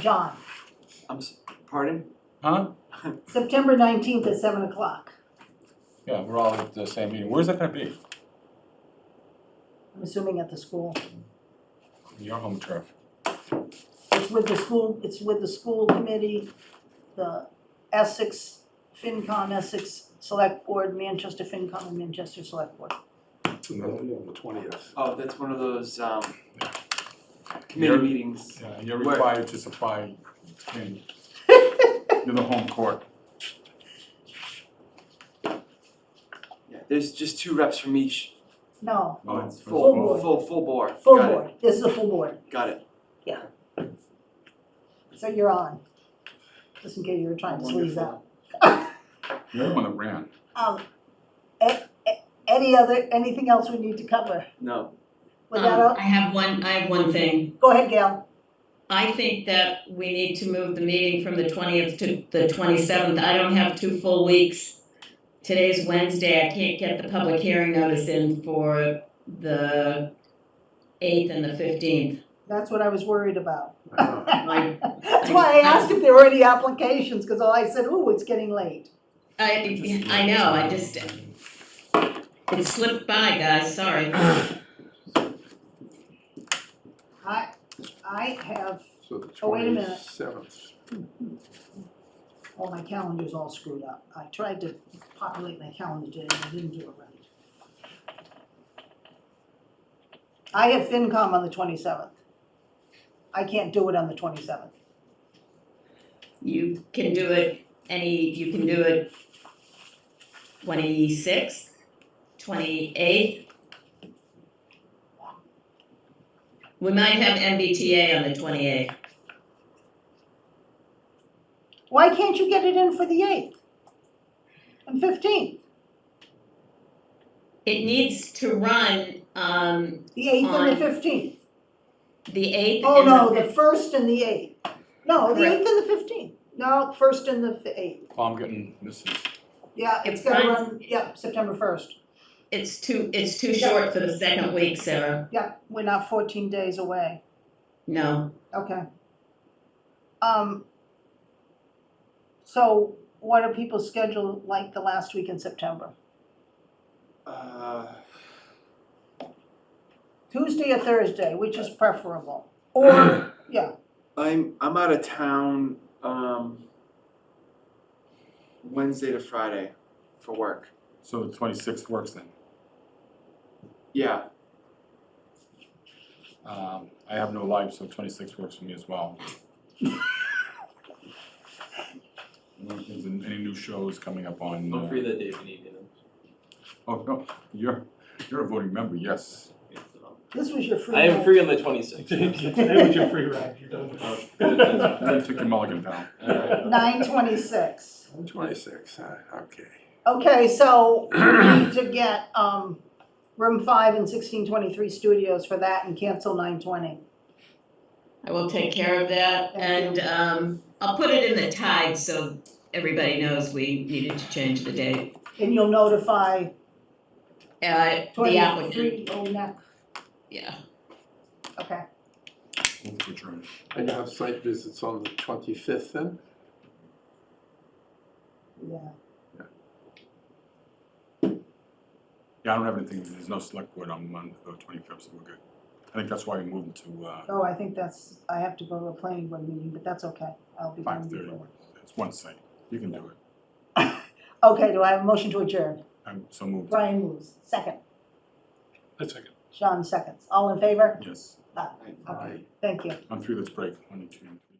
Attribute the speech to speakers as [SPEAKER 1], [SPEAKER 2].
[SPEAKER 1] John,
[SPEAKER 2] I'm, s- pardon?
[SPEAKER 3] Huh?
[SPEAKER 1] September nineteenth at seven o'clock.
[SPEAKER 3] Yeah, we're all at the same meeting. Where's that gonna be?
[SPEAKER 1] I'm assuming at the school.
[SPEAKER 3] Your home turf.
[SPEAKER 1] It's with the school, it's with the school committee, the Essex, FinCon, Essex Select Board, Manchester FinCon, and Manchester Select Board.
[SPEAKER 4] On the twentieth.
[SPEAKER 2] Oh, that's one of those, um, committee
[SPEAKER 3] You're-
[SPEAKER 2] meetings.
[SPEAKER 3] Yeah, you're
[SPEAKER 2] Where?
[SPEAKER 3] required to supply, and you're the home court.
[SPEAKER 2] Yeah, there's just two reps from each.
[SPEAKER 1] No,
[SPEAKER 2] Oh,
[SPEAKER 3] No,
[SPEAKER 2] it's
[SPEAKER 3] for
[SPEAKER 2] full,
[SPEAKER 1] board.
[SPEAKER 2] full, full board.
[SPEAKER 1] full
[SPEAKER 2] Got it,
[SPEAKER 1] board, this is a full board,
[SPEAKER 2] Got it.
[SPEAKER 1] so you're on. Just in case you were trying to squeeze out.
[SPEAKER 2] Wonderful.
[SPEAKER 3] You're the one that ran.
[SPEAKER 1] Um, a- a- any other, anything else we need to cover?
[SPEAKER 2] No,
[SPEAKER 1] With that,
[SPEAKER 5] Um,
[SPEAKER 1] out-
[SPEAKER 5] I have one, I have one thing.
[SPEAKER 1] go ahead, Gail.
[SPEAKER 5] I think that we need to move the meeting from the twentieth to the twenty-seventh. I don't have two full weeks. Today's Wednesday, I can't get the public hearing notice in for the eighth and the fifteenth.
[SPEAKER 1] That's what I was worried about.
[SPEAKER 5] I,
[SPEAKER 1] That's why I asked if there were any applications, because all I said, ooh, it's getting late.
[SPEAKER 5] I, I know, I just, it slipped by, guys, sorry.
[SPEAKER 1] I, I have,
[SPEAKER 4] So the
[SPEAKER 1] Oh, wait a minute.
[SPEAKER 4] twenty-seventh.
[SPEAKER 1] well, my calendar's all screwed up. I tried to populate my calendar today, and I didn't do it right. I have FinCom on the twenty-seventh. I can't do it on the twenty-seventh.
[SPEAKER 5] You can do it any, you can do it twenty-sixth, twenty-eighth. We might have MBTA on the twenty-eighth.
[SPEAKER 1] Why can't you get it in for the eighth? And fifteenth,
[SPEAKER 5] It needs to run, um,
[SPEAKER 1] the eighth and the
[SPEAKER 5] On-
[SPEAKER 1] fifteenth.
[SPEAKER 5] the eighth
[SPEAKER 1] Oh, no,
[SPEAKER 5] and the
[SPEAKER 1] the first and the eighth. No, the
[SPEAKER 5] Correct.
[SPEAKER 1] eighth and the fifteenth. No, first and the eighth.
[SPEAKER 3] Well, I'm getting, this is,
[SPEAKER 1] Yeah, it's
[SPEAKER 5] It's
[SPEAKER 1] gonna
[SPEAKER 5] fine.
[SPEAKER 1] run, yeah, September first.
[SPEAKER 5] It's too, it's too short for the second week, Sarah.
[SPEAKER 1] Yeah, we're not fourteen days away.
[SPEAKER 5] No,
[SPEAKER 1] Okay. Um, so what are people's schedule like the last week in September?
[SPEAKER 2] uh,
[SPEAKER 1] Tuesday or Thursday, which is preferable? Or, yeah,
[SPEAKER 2] I'm, I'm out of town, um, Wednesday to Friday for work.
[SPEAKER 3] so the twenty-sixth works then.
[SPEAKER 2] Yeah,
[SPEAKER 3] Um, I have no life, so twenty-six works for me as well. I don't think there's Any new shows coming up on? uh,
[SPEAKER 6] I'm free that day if you need me. then.
[SPEAKER 3] Oh, no, you're, you're a voting member, yes.
[SPEAKER 6] Yeah, so-
[SPEAKER 1] this was your free.
[SPEAKER 6] I am
[SPEAKER 1] night.
[SPEAKER 6] free on the twenty-sixth.
[SPEAKER 4] Today was your free ride, you're done.
[SPEAKER 6] Oh,
[SPEAKER 3] I took your mulligan down.
[SPEAKER 1] Nine twenty-six.
[SPEAKER 4] Twenty-six, huh, okay.
[SPEAKER 1] Okay, so we need to get, um, room five and sixteen twenty-three studios for that and cancel nine twenty.
[SPEAKER 5] I will take care of that
[SPEAKER 1] Thank
[SPEAKER 5] and,
[SPEAKER 1] you.
[SPEAKER 5] um, I'll put it in the tide so everybody knows we needed to change the date.
[SPEAKER 1] And you'll notify
[SPEAKER 5] Uh, the applicant.
[SPEAKER 1] twenty-three oh nine,
[SPEAKER 5] Yeah.
[SPEAKER 1] okay.
[SPEAKER 3] Move to adjourn.
[SPEAKER 4] And you have site visits on the twenty-fifth then?
[SPEAKER 1] Yeah,
[SPEAKER 3] Yeah, I don't have anything, there's no select board on Monday, the twenty-fifth, so we're good. I think that's why we moved to, uh,
[SPEAKER 1] oh, I think that's, I have to go to a planning board meeting, but that's okay, I'll be
[SPEAKER 3] five
[SPEAKER 1] done
[SPEAKER 3] thirty.
[SPEAKER 1] before.
[SPEAKER 3] It's one site, you can do it.
[SPEAKER 1] Okay, do I have a motion to adjourn?
[SPEAKER 3] I'm so moved,
[SPEAKER 1] Brian moves, second,
[SPEAKER 4] That's okay.
[SPEAKER 1] Sean seconds, all in favor?
[SPEAKER 3] yes.
[SPEAKER 1] Okay, thank you.
[SPEAKER 3] I'm through this break, one, two, three.